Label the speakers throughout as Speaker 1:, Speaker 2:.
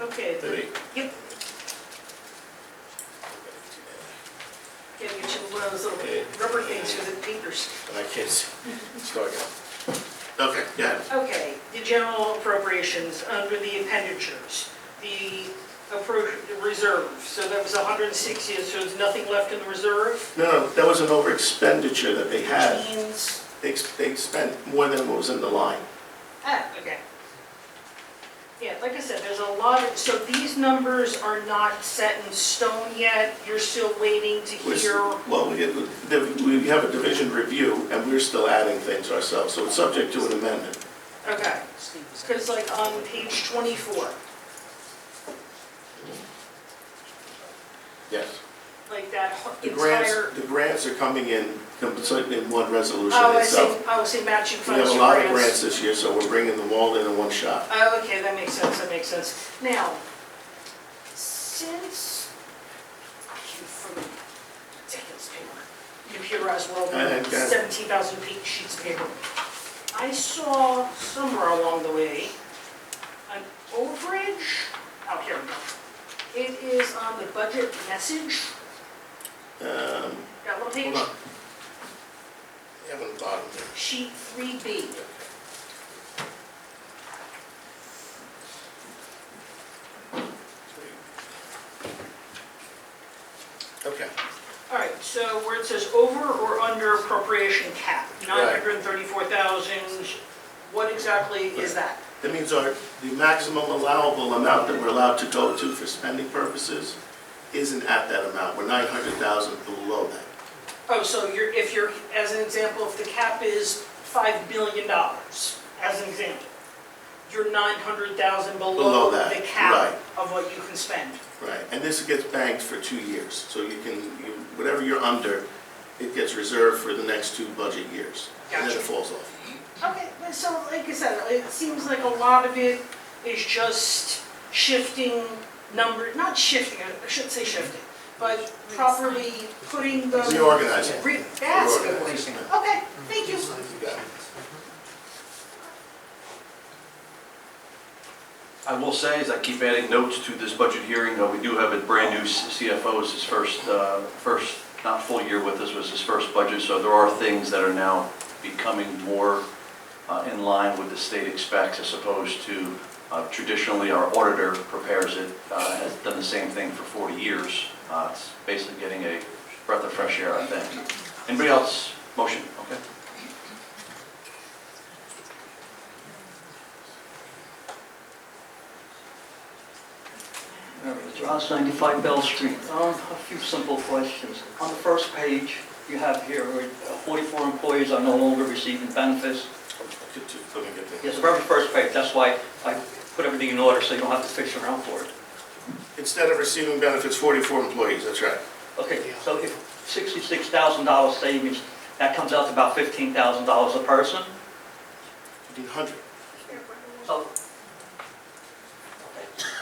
Speaker 1: Okay,
Speaker 2: Do we?
Speaker 1: the- get, gotta get you one of those
Speaker 2: Okay.
Speaker 1: little rubber things for the fingers.
Speaker 2: My kids, it's going on. Okay, yeah,
Speaker 1: Okay, the general appropriations under the appenditures, the appro- the reserve, so that was 160, so there's nothing left in the reserve?
Speaker 2: no, that was an over expenditure that they had.
Speaker 1: Means-
Speaker 2: They ex- they spent more than what was in the line.
Speaker 1: Ah, okay. Yeah, like I said, there's a lot of, so these numbers are not set in stone yet, you're still waiting to
Speaker 2: We're s-
Speaker 1: hear?
Speaker 2: Well, we get- the- we have a division review, and we're still adding things ourselves, so it's subject to an amendment.
Speaker 1: Okay, because like on page 24,
Speaker 2: Yes.
Speaker 1: like that hu-
Speaker 2: The grants,
Speaker 1: entire...
Speaker 2: the grants are coming in completely in one resolution
Speaker 1: Oh, I see,
Speaker 2: itself.
Speaker 1: oh, I see matching
Speaker 2: We
Speaker 1: funds
Speaker 2: have a
Speaker 1: for
Speaker 2: lot of grants this year, so we're bringing them all in in one shot.
Speaker 1: Oh, okay, that makes sense, that makes sense. Now, since, shoot, from ridiculous paper, computerized world,
Speaker 2: I- I got it.
Speaker 1: 17,000 page sheets of paper, I saw somewhere along the way, an overage, oh, here we go. It is on the budget message,
Speaker 2: Um,
Speaker 1: that little
Speaker 2: Hold
Speaker 1: page,
Speaker 2: on. You have it on the bottom there.
Speaker 1: sheet 3B.
Speaker 2: Okay,
Speaker 1: All right, so where it says over or under appropriation cap,
Speaker 2: Right.
Speaker 1: 934,000, what exactly is that?
Speaker 2: that means our, the maximum allowable amount that we're allowed to go to for spending purposes isn't at that amount, we're nine hundred thousand below that.
Speaker 1: Oh, so you're, if you're, as an example, if the cap is $5 billion, as an example, you're 900,000 below
Speaker 2: Below that,
Speaker 1: the cap
Speaker 2: right.
Speaker 1: of what you can spend.
Speaker 2: Right, and this gets banked for two years, so you can, you- whatever you're under, it gets reserved for the next two budget years. And then it
Speaker 1: Gotcha.
Speaker 2: falls off.
Speaker 1: Okay, but so like I said, it seems like a lot of it is just shifting number, not shifting, I shouldn't say shifting, but properly putting the.
Speaker 2: Reorganize it.
Speaker 1: Re- That's a good way.
Speaker 2: Reorganize it.
Speaker 1: Okay, thank you.
Speaker 2: You got it.
Speaker 3: I will say is I keep adding notes to this budget hearing, though we do have a brand new CFO, it's his first, uh, first, not full year with us, was his first budget, so there are things that are now becoming more uh, in line with the state expects as opposed to uh, traditionally our auditor prepares it, uh, has done the same thing for 40 years. Uh, It's basically getting a breath of fresh air, I think. Anybody else? Motion, okay?
Speaker 4: Rouse 95 Bell Street. Um, A few simple questions. On the first page, you have here, uh, 44 employees are no longer receiving benefits.
Speaker 2: Good to- Let me get that.
Speaker 4: Yes, the very first page, that's why I put everything in order, so you don't have to fish around for it.
Speaker 2: Instead of receiving benefits, 44 employees, that's right.
Speaker 4: Okay, so if $66,000 savings, that comes out to about $15,000 a person?
Speaker 2: 100.
Speaker 4: So,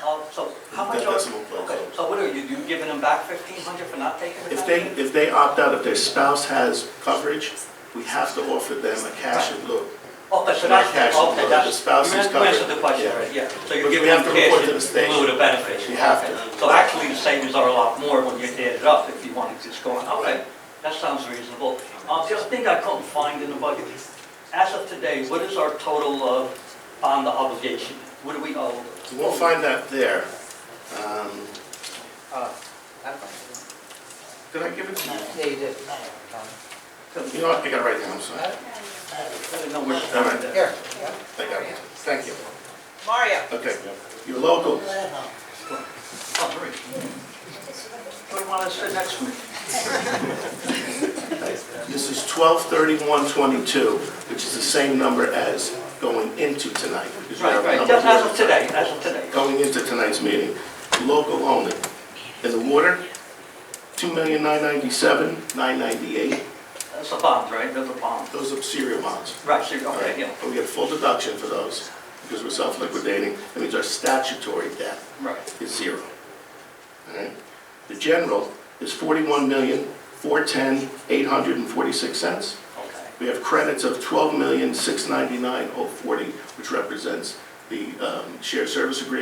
Speaker 4: Uh, so how much
Speaker 2: That
Speaker 4: are...
Speaker 2: decimal place.
Speaker 4: Okay, so what are you, you giving them back 1,500 for not taking the
Speaker 2: If they,
Speaker 4: benefit?
Speaker 2: if they opt out, if their spouse has coverage, we have to offer them a cash in lieu.
Speaker 4: Okay, so
Speaker 2: Not
Speaker 4: that's,
Speaker 2: cash,
Speaker 4: okay,
Speaker 2: no,
Speaker 4: that's.
Speaker 2: the spouse is
Speaker 4: You answered
Speaker 2: covered.
Speaker 4: the question,
Speaker 2: Yeah.
Speaker 4: right, yeah. So
Speaker 2: But
Speaker 4: you're
Speaker 2: we
Speaker 4: giving
Speaker 2: have
Speaker 4: them
Speaker 2: to report
Speaker 4: cash
Speaker 2: to the
Speaker 4: in
Speaker 2: state.
Speaker 4: lieu of benefits.
Speaker 2: You have to.
Speaker 4: Okay. So actually, the savings are a lot more when you add it up, if you want to just go on, okay, that sounds reasonable. Uh, the other thing I couldn't find in the budget, as of today, what is our total of bond obligation? What do we owe?
Speaker 2: You won't find that there. Um,
Speaker 5: Uh,
Speaker 2: Did I give it to you?
Speaker 5: Yeah, you did.
Speaker 2: You know what, I got it right now, I'm sorry.
Speaker 4: I don't know where to
Speaker 2: All right.
Speaker 4: find that.
Speaker 5: Here.
Speaker 2: I got it. Thank you.
Speaker 5: Mario.
Speaker 2: Okay, your local,
Speaker 4: Oh, great. What do you want to say next week?
Speaker 2: This is 123122, which is the same number as going into tonight. because you have
Speaker 4: Right,
Speaker 2: a
Speaker 4: right,
Speaker 2: number
Speaker 4: just as of
Speaker 2: of-
Speaker 4: today, as of today.
Speaker 2: Going into tonight's meeting, local only. In the water, 2,997,998.
Speaker 4: That's a bond, right, that's a bond.
Speaker 2: Those are serial amounts.
Speaker 4: Right, so, you're-
Speaker 2: All right,
Speaker 4: okay, yeah,
Speaker 2: And we get a full deduction for those because we're self-liquidating. That means our statutory debt
Speaker 4: right.
Speaker 2: is zero. All right? The general is 41,410,846 cents.
Speaker 4: Okay.
Speaker 2: We have credits of $12,699,040, which represents the um, shared service agreement